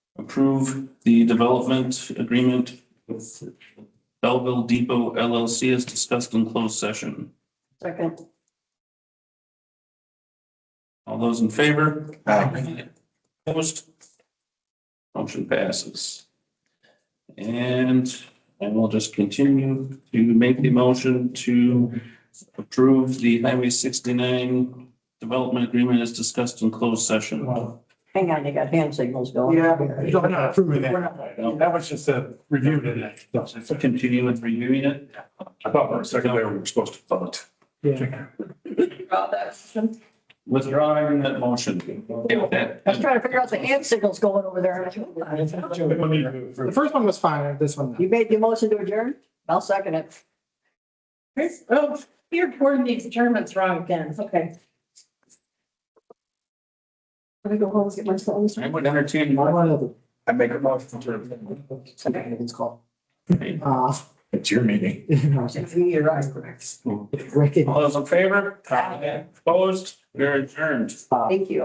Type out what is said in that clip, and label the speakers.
Speaker 1: approve the development agreement with Belleville Depot LLC as discussed in closed session.
Speaker 2: Second.
Speaker 1: All those in favor?
Speaker 3: Aye.
Speaker 1: Opposed? Motion passes. And I will just continue to make the motion to approve the Highway sixty-nine development agreement as discussed in closed session.
Speaker 2: Hang on, you got hand signals going.
Speaker 3: Yeah, I'm not approving
Speaker 2: We're
Speaker 3: that.
Speaker 2: not-
Speaker 3: That was just a review today.
Speaker 1: Continue with reviewing it.
Speaker 4: I thought for a second there we were supposed to vote.
Speaker 3: Yeah.
Speaker 1: Withdrawing that motion. Okay with that?
Speaker 2: I was trying to figure out the hand signals going over there.
Speaker 3: The first one was fine, this one.
Speaker 2: You made the motion to adjourn? I'll second it.
Speaker 5: Chris, oh, your board needs German's wrong again, okay. Let me go home and get my phones.
Speaker 1: I would entertain more.
Speaker 3: It's
Speaker 4: I make a motion to,
Speaker 3: called.
Speaker 1: All
Speaker 3: Uh,
Speaker 4: it's your meeting.
Speaker 2: You're right, correct.
Speaker 3: Ricky.
Speaker 1: those in favor? Opposed? You're adjourned.
Speaker 2: Thank you.